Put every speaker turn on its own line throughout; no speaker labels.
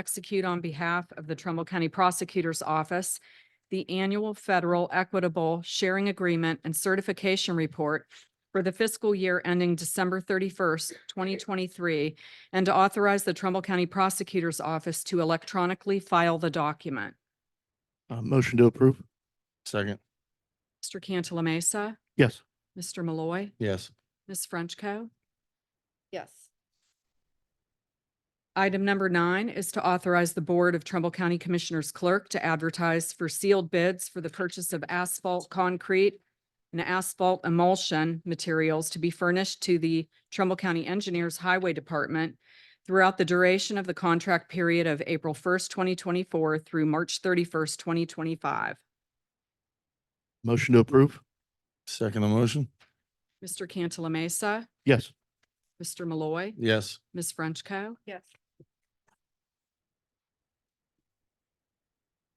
execute on behalf of the Trumbull County Prosecutor's Office the annual federal equitable sharing agreement and certification report for the fiscal year ending December thirty-first, twenty twenty-three, and to authorize the Trumbull County Prosecutor's Office to electronically file the document.
Uh, motion to approve. Second.
Mr. Cantala Mesa,
Yes.
Mr. Malloy,
Yes.
Ms. Frenchco.
yes,
Item number nine is to authorize the Board of Trumbull County Commissioners Clerk to advertise for sealed bids for the purchase of asphalt concrete and asphalt emulsion materials to be furnished to the Trumbull County Engineers Highway Department throughout the duration of the contract period of April first, twenty twenty-four through March thirty-first, twenty twenty-five.
Motion to approve. Second the motion.
Mr. Cantala Mesa,
Yes.
Mr. Malloy,
Yes.
Ms. Frenchco.
yes,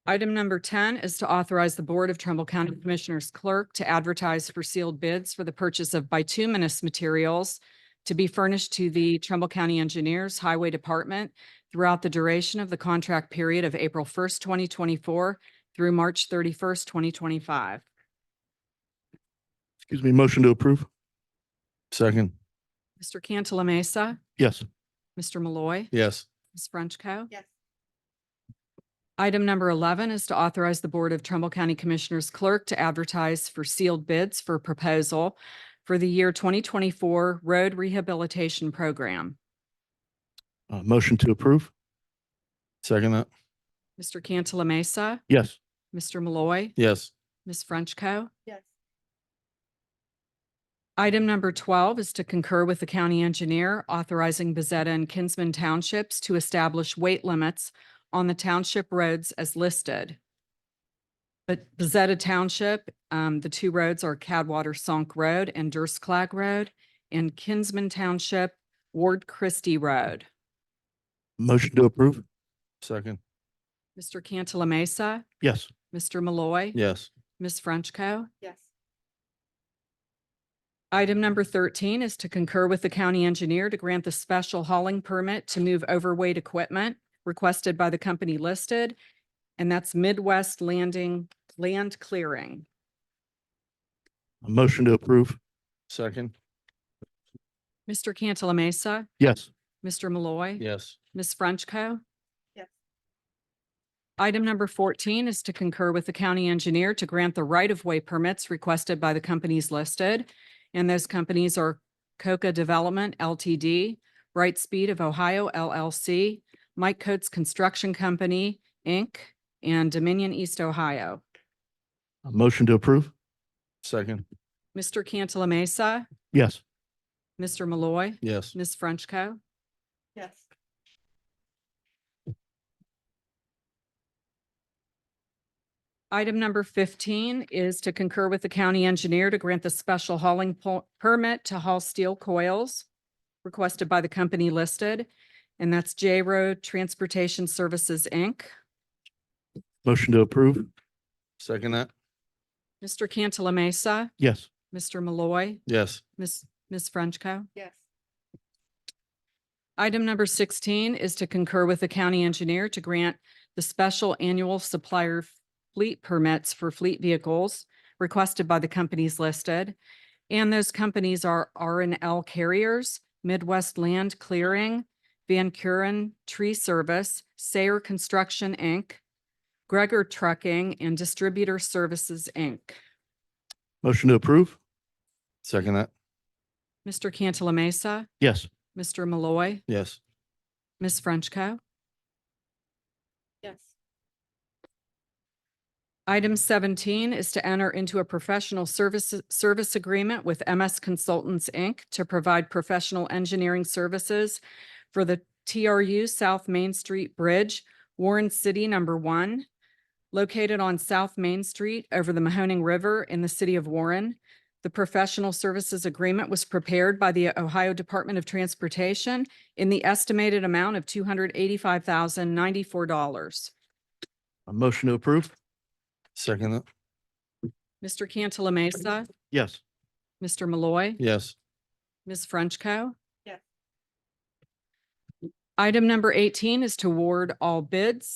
Item number ten is to authorize the Board of Trumbull County Commissioners Clerk to advertise for sealed bids for the purchase of bituminous materials to be furnished to the Trumbull County Engineers Highway Department throughout the duration of the contract period of April first, twenty twenty-four through March thirty-first, twenty twenty-five.
Excuse me, motion to approve. Second.
Mr. Cantala Mesa,
Yes.
Mr. Malloy,
Yes.
Ms. Frenchco.
yes,
Item number eleven is to authorize the Board of Trumbull County Commissioners Clerk to advertise for sealed bids for proposal for the year twenty twenty-four Road Rehabilitation Program.
Uh, motion to approve. Second that.
Mr. Cantala Mesa,
Yes.
Mr. Malloy,
Yes.
Ms. Frenchco.
yes,
Item number twelve is to concur with the county engineer authorizing Bezetta and Kinsman Townships to establish weight limits on the township roads as listed. But Bezetta Township, um, the two roads are Cadwater Sunk Road and Durst Clag Road, and Kinsman Township, Ward Christie Road.
Motion to approve. Second.
Mr. Cantala Mesa,
Yes.
Mr. Malloy.
Yes.
Ms. Frenchco.
yes,
Item number thirteen is to concur with the county engineer to grant the special hauling permit to move overweight equipment requested by the company listed, and that's Midwest Landing Land Clearing.
A motion to approve. Second.
Mr. Cantala Mesa,
Yes.
Mr. Malloy.
Yes.
Ms. Frenchco.
Yes.
Item number fourteen is to concur with the county engineer to grant the right-of-way permits requested by the companies listed. And those companies are Coca Development LTD, Bright Speed of Ohio LLC, Mike Coates Construction Company, Inc., and Dominion East Ohio.
A motion to approve. Second.
Mr. Cantala Mesa,
Yes.
Mr. Malloy,
Yes.
Ms. Frenchco.
yes,
Item number fifteen is to concur with the county engineer to grant the special hauling po- permit to haul steel coils requested by the company listed, and that's J Road Transportation Services, Inc.
Motion to approve. Second that.
Mr. Cantala Mesa,
Yes.
Mr. Malloy,
Yes.
Ms. Ms. Frenchco.
yes,
Item number sixteen is to concur with the county engineer to grant the special annual supplier fleet permits for fleet vehicles requested by the companies listed. And those companies are R and L Carriers, Midwest Land Clearing, Van Kuren Tree Service, Sayer Construction, Inc., Gregor Trucking, and Distributor Services, Inc.
Motion to approve. Second that.
Mr. Cantala Mesa,
Yes.
Mr. Malloy,
Yes.
Ms. Frenchco.
yes,
Item seventeen is to enter into a professional services, service agreement with MS Consultants, Inc. to provide professional engineering services for the TRU South Main Street Bridge, Warren City Number One, located on South Main Street over the Mahoning River in the city of Warren. The professional services agreement was prepared by the Ohio Department of Transportation in the estimated amount of two hundred eighty-five thousand ninety-four dollars.
A motion to approve. Second that.
Mr. Cantala Mesa,
Yes.
Mr. Malloy.
Yes.
Ms. Frenchco.
Yes.
Item number eighteen is to award all bids.